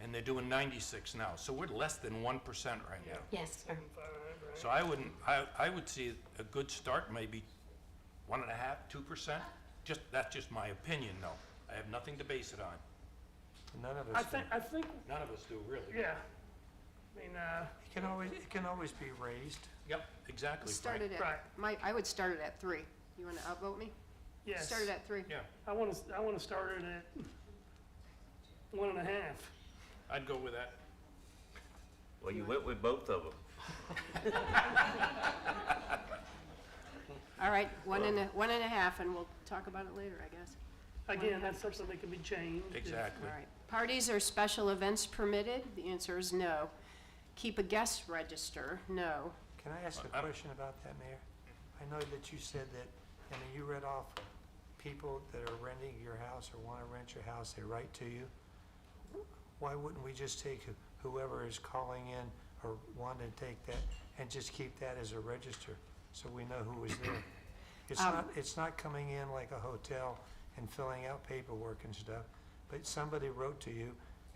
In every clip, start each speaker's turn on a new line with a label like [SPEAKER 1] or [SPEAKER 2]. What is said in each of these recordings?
[SPEAKER 1] and they're doing 96 now. So we're less than 1% right now.
[SPEAKER 2] Yes, sir.
[SPEAKER 1] So I wouldn't, I, I would see a good start, maybe one and a half, two percent. Just, that's just my opinion, though. I have nothing to base it on.
[SPEAKER 3] None of
[SPEAKER 4] I
[SPEAKER 3] us, do.
[SPEAKER 4] think, I think,
[SPEAKER 1] None of us do, really.
[SPEAKER 4] yeah. I mean, uh,
[SPEAKER 3] it can always, it can always be raised.
[SPEAKER 1] Yep, exactly,
[SPEAKER 2] Start
[SPEAKER 1] Frank.
[SPEAKER 2] it at,
[SPEAKER 4] Right.
[SPEAKER 2] my, I would start it at three. You want to upvote me?
[SPEAKER 4] yes.
[SPEAKER 2] Start it at three.
[SPEAKER 1] Yeah,
[SPEAKER 4] I want to, I want to start it at one and a half.
[SPEAKER 1] I'd go with that.
[SPEAKER 5] Well, you went with both of them.
[SPEAKER 2] All right, one and a, one and a half, and we'll talk about it later, I guess.
[SPEAKER 4] Again, that's something that can be changed. if-
[SPEAKER 1] Exactly.
[SPEAKER 2] All right. Parties or special events permitted? The answer is no. Keep a guest register? No.
[SPEAKER 3] Can I ask a
[SPEAKER 1] I-
[SPEAKER 3] question about that, Mayor? I know that you said that, and then you read off people that are renting your house or want to rent your house, they write to you. Why wouldn't we just take who- whoever is calling in or wanting to take that and just keep that as a register so we know who was there? It's not, it's not coming in like a hotel and filling out paperwork and stuff, but somebody wrote to you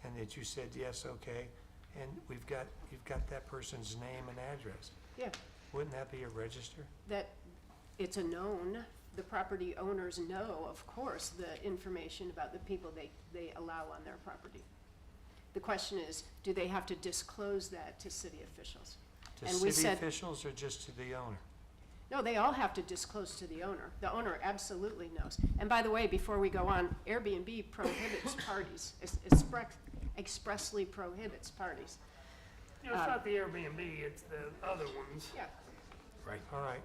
[SPEAKER 3] and that you said, yes, okay, and we've got, you've got that person's name and address.
[SPEAKER 2] Yeah,
[SPEAKER 3] Wouldn't that be a register?
[SPEAKER 2] that, it's a known, the property owners know, of course, the information about the people they, they allow on their property. The question is, do they have to disclose that to city officials?
[SPEAKER 3] To
[SPEAKER 2] And we
[SPEAKER 3] city
[SPEAKER 2] said,
[SPEAKER 3] officials or just to the owner?
[SPEAKER 2] no, they all have to disclose to the owner. The owner absolutely knows. And by the way, before we go on, Airbnb prohibits parties, es- express- expressly prohibits parties.
[SPEAKER 4] You know, it's not the Airbnb, it's the other ones.
[SPEAKER 2] Yeah.
[SPEAKER 1] Right.
[SPEAKER 3] All right,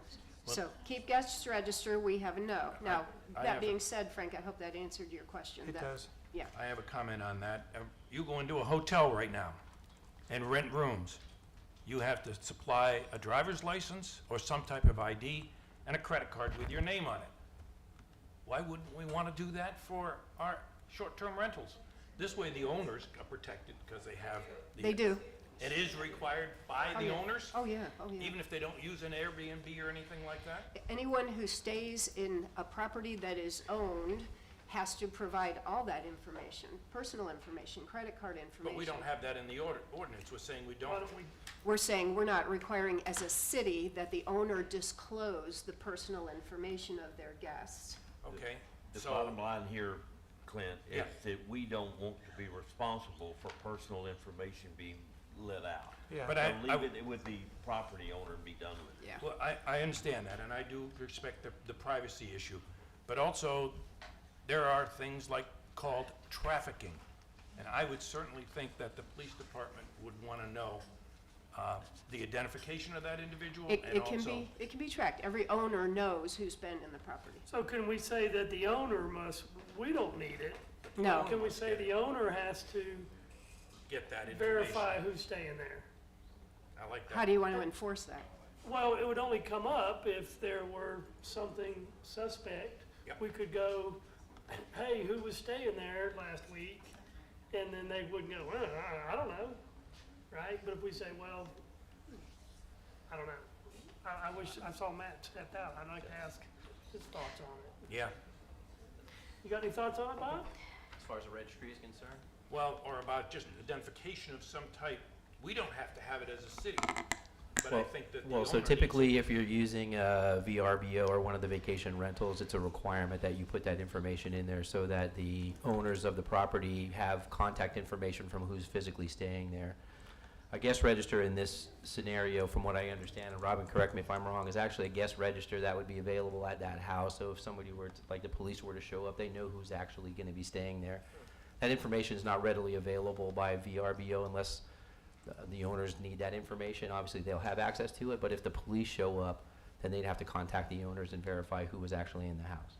[SPEAKER 2] So keep guests register, we have a no. Now,
[SPEAKER 1] I
[SPEAKER 2] that
[SPEAKER 1] have
[SPEAKER 2] being
[SPEAKER 1] a-
[SPEAKER 2] said, Frank, I hope that answered your question.
[SPEAKER 3] it
[SPEAKER 2] That-
[SPEAKER 3] does.
[SPEAKER 2] Yeah,
[SPEAKER 1] I have a comment on that. Uh, You go into a hotel right now and rent rooms. You have to supply a driver's license or some type of ID and a credit card with your name on it. Why wouldn't we want to do that for our short-term rentals? This way, the owners are protected because they have. the-
[SPEAKER 2] they do.
[SPEAKER 1] It is required by
[SPEAKER 2] Oh,
[SPEAKER 1] the
[SPEAKER 2] yeah.
[SPEAKER 1] owners,
[SPEAKER 2] Oh, yeah, oh, yeah.
[SPEAKER 1] even if they don't use an Airbnb or anything like that?
[SPEAKER 2] Anyone who stays in a property that is owned has to provide all that information, personal information, credit card information.
[SPEAKER 1] But we don't have that in the order- ordinance. We're saying we
[SPEAKER 4] Why
[SPEAKER 1] don't.
[SPEAKER 4] don't we,
[SPEAKER 2] We're saying we're not requiring as a city that the owner disclose the personal information of their guests.
[SPEAKER 1] Okay.
[SPEAKER 5] The
[SPEAKER 1] so-
[SPEAKER 5] bottom line here, Clint, is
[SPEAKER 1] Yeah.
[SPEAKER 5] that we don't want to be responsible for personal information being let out.
[SPEAKER 3] Yeah.
[SPEAKER 1] But I-
[SPEAKER 5] So leave it with the property owner and be done with it.
[SPEAKER 2] Yeah.
[SPEAKER 1] Well, I, I understand that, and I do respect the, the privacy issue. But also, there are things like called trafficking. And I would certainly think that the police department would want to know uh, the identification of that individual
[SPEAKER 2] It,
[SPEAKER 1] and
[SPEAKER 2] it can
[SPEAKER 1] also.
[SPEAKER 2] be, it can be tracked. Every owner knows who's been in the property.
[SPEAKER 4] so can we say that the owner must, we don't need it?
[SPEAKER 2] No.
[SPEAKER 4] Can we say the owner has to
[SPEAKER 1] Get that information.
[SPEAKER 4] verify who's staying there?
[SPEAKER 1] I like
[SPEAKER 2] How
[SPEAKER 1] that.
[SPEAKER 2] do you want to enforce that?
[SPEAKER 4] Well, it would only come up if there were something suspect.
[SPEAKER 1] Yep.
[SPEAKER 4] We could go, hey, who was staying there last week? And then they wouldn't go, well, I- I don't know, right? But if we say, well, I don't know. I, I wish, I saw Matt stepped out. I'd like to ask his thoughts on it.
[SPEAKER 1] Yeah.
[SPEAKER 4] You got any thoughts on it, Bob?
[SPEAKER 6] as far as the registry is concerned?
[SPEAKER 1] Well, or about just identification of some type. We don't have to have it as a city, but I
[SPEAKER 6] Well-
[SPEAKER 1] think that the
[SPEAKER 6] Well, so
[SPEAKER 1] owner needs-
[SPEAKER 6] typically, if you're using uh, VRBO or one of the vacation rentals, it's a requirement that you put that information in there so that the owners of the property have contact information from who's physically staying there. A guest register in this scenario, from what I understand, and Robin, correct me if I'm wrong, is actually a guest register that would be available at that house. So if somebody were, to- like the police were to show up, they know who's actually going to be staying there. That information is not readily available by VRBO unless uh, the owners need that information, obviously they'll have access to it, but if the police show up, then they'd have to contact the owners and verify who was actually in the house.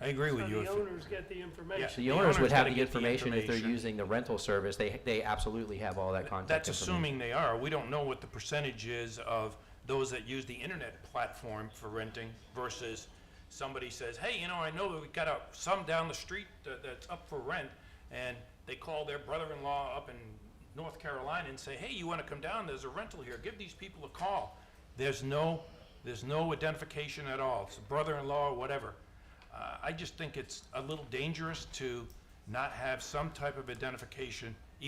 [SPEAKER 1] I agree
[SPEAKER 4] So
[SPEAKER 1] with you.
[SPEAKER 4] the
[SPEAKER 1] if-
[SPEAKER 4] owners get the information.
[SPEAKER 6] The owners would have
[SPEAKER 1] gotta
[SPEAKER 6] the
[SPEAKER 1] get the
[SPEAKER 6] information if they're
[SPEAKER 1] information.
[SPEAKER 6] using the rental service, they, they absolutely have all that contact
[SPEAKER 1] That's
[SPEAKER 6] information.
[SPEAKER 1] assuming they are. We don't know what the percentage is of those that use the internet platform for renting versus somebody says, hey, you know, I know that we got a, some down the street that, that's up for rent, and they call their brother-in-law up in North Carolina and say, hey, you wanna come down? There's a rental here. Give these people a call. There's no, there's no identification at all. It's a brother-in-law or whatever. Uh, I just think it's a little dangerous to not have some type of identification